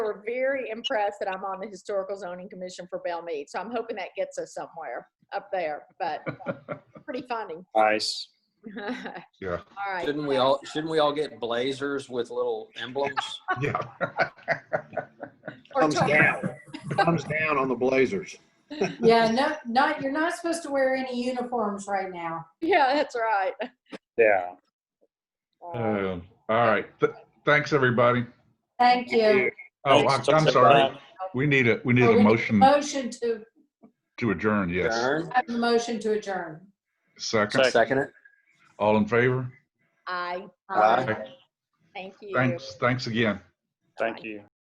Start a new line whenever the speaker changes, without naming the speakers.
were very impressed that I'm on the Historical Zoning Commission for Bellmead. So I'm hoping that gets us somewhere up there, but pretty funny.
Nice.
All
Yeah,
right.
Shouldn't we all, shouldn't we all get blazers with little emblems?
yeah.
Or
Thumbs
talk-
down. Thumbs down on the Blazers.
Yeah, no, not, you're not supposed to wear any uniforms right now.
Yeah, that's right.
Yeah.
Uh,
Um, All right, Th- thanks, everybody.
Thank you.
Oh,
Thanks,
I- I'm sorry.
everybody.
We need a, we need
Oh,
a
we-
motion
Motion to,
to adjourn, yes.
Darn.
I have a motion to adjourn.
Second,
Second it.
all in favor?
I,
Aye.
thank you.
Thanks, thanks again.
Thank you.